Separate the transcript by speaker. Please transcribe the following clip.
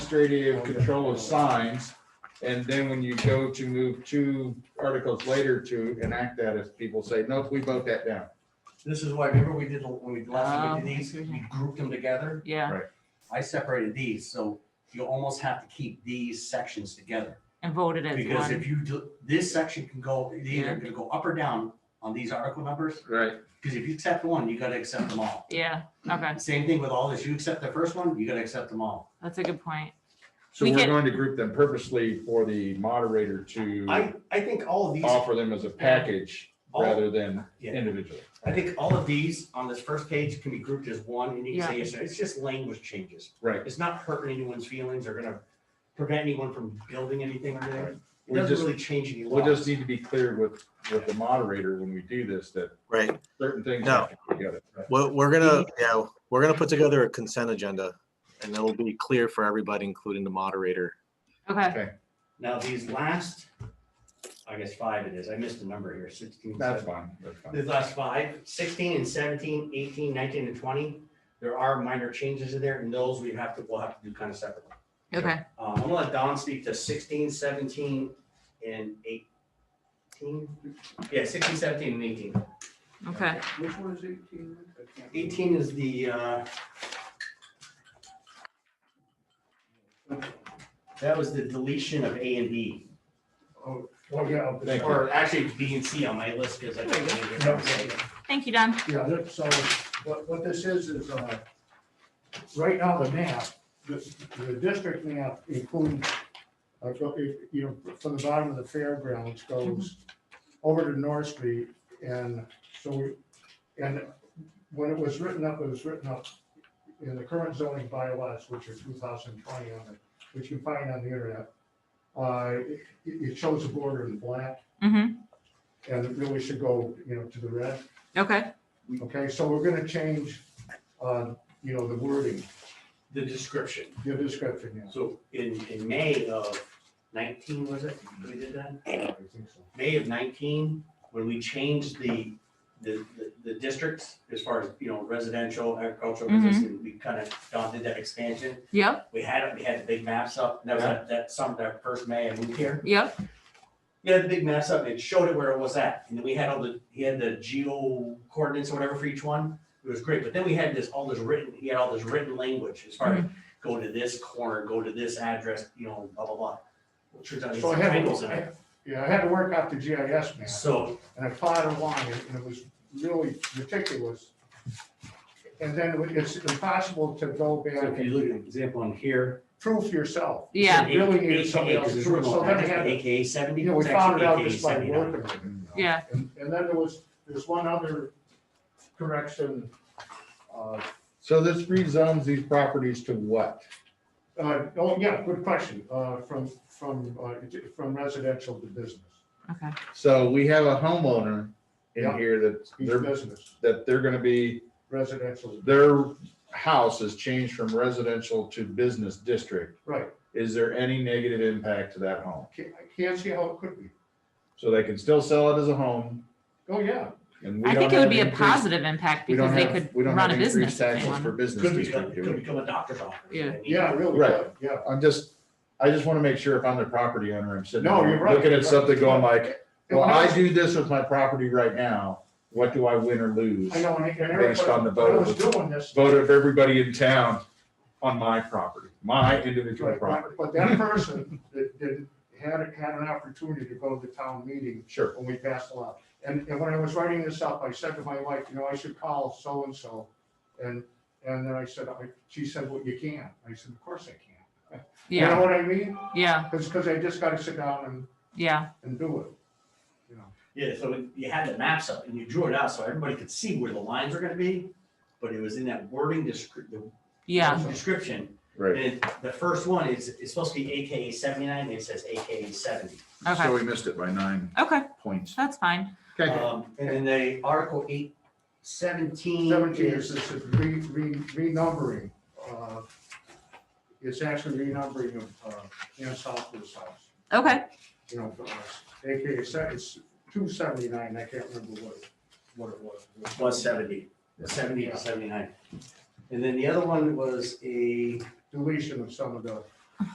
Speaker 1: administrative control of signs. And then when you go to move two articles later to enact that, if people say, nope, we vote that down.
Speaker 2: This is why, remember we did, when we last time we
Speaker 3: Oh,
Speaker 2: did these,
Speaker 3: excuse
Speaker 2: we
Speaker 3: me.
Speaker 2: grouped them together?
Speaker 3: Yeah,
Speaker 2: I separated these, so you almost have to keep these sections together.
Speaker 3: and voted as
Speaker 2: Because
Speaker 3: one.
Speaker 2: if you do, this section can go, they're either gonna go up or down on these article numbers,
Speaker 1: Right.
Speaker 2: because if you accept one, you gotta accept them all.
Speaker 3: Yeah, okay,
Speaker 2: Same thing with all this, you accept the first one, you gotta accept them all.
Speaker 3: that's a good point.
Speaker 1: So
Speaker 3: We
Speaker 1: we're
Speaker 3: can-
Speaker 1: going to group them purposely for the moderator to
Speaker 2: I, I think all of these,
Speaker 1: offer them as a package
Speaker 2: All-
Speaker 1: rather than
Speaker 2: Yeah.
Speaker 1: individually.
Speaker 2: I think all of these on this first page can be grouped as one, and you can say,
Speaker 3: Yeah.
Speaker 2: it's, it's just language changes.
Speaker 1: Right.
Speaker 2: It's not hurting anyone's feelings or gonna prevent anyone from building anything or
Speaker 1: Right.
Speaker 2: anything. It
Speaker 1: We
Speaker 2: doesn't
Speaker 1: just-
Speaker 2: really change any
Speaker 1: We
Speaker 2: law.
Speaker 1: just need to be clear with, with the moderator when we do this, that
Speaker 4: Right,
Speaker 1: certain things
Speaker 4: No.
Speaker 1: have to go together.
Speaker 4: we're, we're gonna, yeah, we're gonna put together a consent agenda and it'll be clear for everybody, including the moderator.
Speaker 3: Okay,
Speaker 2: Now, these last, I guess five it is, I missed a number here, sixteen.
Speaker 1: That's
Speaker 2: 17.
Speaker 1: fine, that's fine.
Speaker 2: These last five, 16 and 17, 18, 19, and twenty, there are minor changes in there, and those we have to, we'll have to do kind of separately.
Speaker 3: okay,
Speaker 2: Um, I'm gonna let Don speak to 16, 17, and eighteen. Yeah, 16, 17, and eighteen.
Speaker 3: okay.
Speaker 5: Which one is eighteen?
Speaker 2: Eighteen is the, uh, that was the deletion of A and B,
Speaker 5: Oh, oh, yeah. but-
Speaker 1: Thank you.
Speaker 2: or actually B and C on my list, because I.
Speaker 3: Thank you, Don.
Speaker 5: Yeah, that- so what, what this is, is, uh, right now the map, the, the district map includes, uh, go- if- you know, from the bottom of the fairgrounds goes over to North Street. And so, we- and when it was written up, it was written up in the current zoning bylaws, which are two thousand twenty on it, which you can find on the internet. Uh, it, it shows the border in black
Speaker 3: Mm-hmm,
Speaker 5: and it really should go, you know, to the red.
Speaker 3: okay,
Speaker 5: Okay, so we're gonna change, uh, you know, the wording,
Speaker 2: The description.
Speaker 5: the description, yeah.
Speaker 2: So in, in May of nineteen, was it, we did that?
Speaker 5: I think so.
Speaker 2: May of nineteen, when we changed the, the, the- the districts as far as, you know, residential, agricultural
Speaker 3: Mhm.
Speaker 2: business, and we kind of, Don did that expansion.
Speaker 3: yep,
Speaker 2: We had, it. we had the big maps up, and that was that, that summer, that first May I moved here.
Speaker 3: yep,
Speaker 2: We had the big maps up, and it showed it where it was at, and then we had all the, he had the geo coordinates or whatever for each one. It was great, but then we had this, all this written, he had all this written language as far as go to this corner, go to this address, you know, blah, blah, blah. Well, Turns out these
Speaker 5: So I had,
Speaker 2: titles in
Speaker 5: to-
Speaker 2: it.
Speaker 5: I- yeah, I had to work out the GIS map,
Speaker 2: So,
Speaker 5: and I plotted along, it, and it was really ridiculous. And then it- it's impossible to
Speaker 2: so
Speaker 5: go
Speaker 2: if
Speaker 5: back
Speaker 2: you
Speaker 5: and
Speaker 2: look at an example on here.
Speaker 5: proof yourself.
Speaker 3: Yeah.
Speaker 5: You Really need somebody
Speaker 2: AKA,
Speaker 5: else's
Speaker 2: because we're
Speaker 5: proof, so
Speaker 2: going
Speaker 5: then I
Speaker 2: back
Speaker 5: had,
Speaker 2: to
Speaker 5: to-
Speaker 2: AKA seventy.
Speaker 5: you know, we
Speaker 2: it's actually
Speaker 5: found it out
Speaker 2: AKA
Speaker 5: just by
Speaker 2: 79.
Speaker 5: working. with it, you know.
Speaker 3: Yeah.
Speaker 5: And, and then there was, there's one other correction, uh,
Speaker 1: So this rezones these properties to what?
Speaker 5: Uh, oh, yeah, good question, uh, from, from, uh, from residential to business.
Speaker 3: okay,
Speaker 1: So we have a homeowner in
Speaker 5: Yeah.
Speaker 1: here that
Speaker 5: He's
Speaker 1: they're,
Speaker 5: business,
Speaker 1: that they're gonna be,
Speaker 5: residential,
Speaker 1: their house is changed from residential to business district.
Speaker 5: right,
Speaker 1: Is there any negative impact to that home?
Speaker 5: can't, I can't see how it could be,
Speaker 1: So they can still sell it as a home
Speaker 5: oh, yeah.
Speaker 1: and we
Speaker 3: I
Speaker 1: don't
Speaker 3: think it would
Speaker 1: have
Speaker 3: be a
Speaker 1: increased-
Speaker 3: positive impact
Speaker 1: we don't
Speaker 3: because they
Speaker 1: have-
Speaker 3: could
Speaker 1: we don't
Speaker 3: run a
Speaker 1: have increased
Speaker 3: business if they
Speaker 1: taxes For
Speaker 3: wanted.
Speaker 1: business
Speaker 2: Could become,
Speaker 1: district. do
Speaker 2: could
Speaker 1: we?
Speaker 2: become a doctor's office.
Speaker 3: Yeah.
Speaker 2: I mean,
Speaker 5: Yeah, really,
Speaker 1: Right.
Speaker 5: yeah, yeah.
Speaker 1: I'm just, I just wanna make sure if I'm the property owner, I'm sitting.
Speaker 5: No,
Speaker 1: there
Speaker 5: you're right.
Speaker 1: Looking at something going like,
Speaker 5: And
Speaker 1: well,
Speaker 5: when
Speaker 1: I
Speaker 5: was-
Speaker 1: do this with my property right now. What do I win or lose?
Speaker 5: I know, and and everybody,
Speaker 1: based on the
Speaker 5: when I was
Speaker 1: vote.
Speaker 5: doing this,
Speaker 1: vote of everybody in town on my property, my individual
Speaker 5: right,
Speaker 1: property.
Speaker 5: but but that person that, that had, had an opportunity to go to the town meeting
Speaker 1: Sure.
Speaker 5: when we passed the law. And, and when I was writing this up, I said to my wife, you know, I should call so-and-so, and, and then I said, I- she said, well, you can, I said, of course I can. You
Speaker 3: Yeah,
Speaker 5: know what I mean?
Speaker 3: yeah,
Speaker 5: Because, I just gotta sit down and,
Speaker 3: yeah,
Speaker 5: and do it. you know.
Speaker 2: Yeah, so you had the maps up and you drew it out so everybody could see where the lines are gonna be, but it was in that wording descri- the
Speaker 3: yeah,
Speaker 2: description.
Speaker 1: Right.
Speaker 2: And the first one is, is supposed to be AKA seventy-nine, and it says AKA seventy.
Speaker 3: okay,
Speaker 1: we missed it by nine
Speaker 3: okay,
Speaker 1: points.
Speaker 3: that's fine.
Speaker 2: Um, and then they, Article eight seventeen.
Speaker 5: Seventeen is
Speaker 2: is-
Speaker 5: this is re, re, renumbering, uh, it's actually renumbering of, uh, Ann Southwood's house.
Speaker 3: Okay,
Speaker 5: You know, uh, AKA, se- it's two seventy-nine, I can't remember what, what it was.
Speaker 2: Was seventy. Seventy to seventy-nine. And then the other one was a,
Speaker 5: Deletion of some of the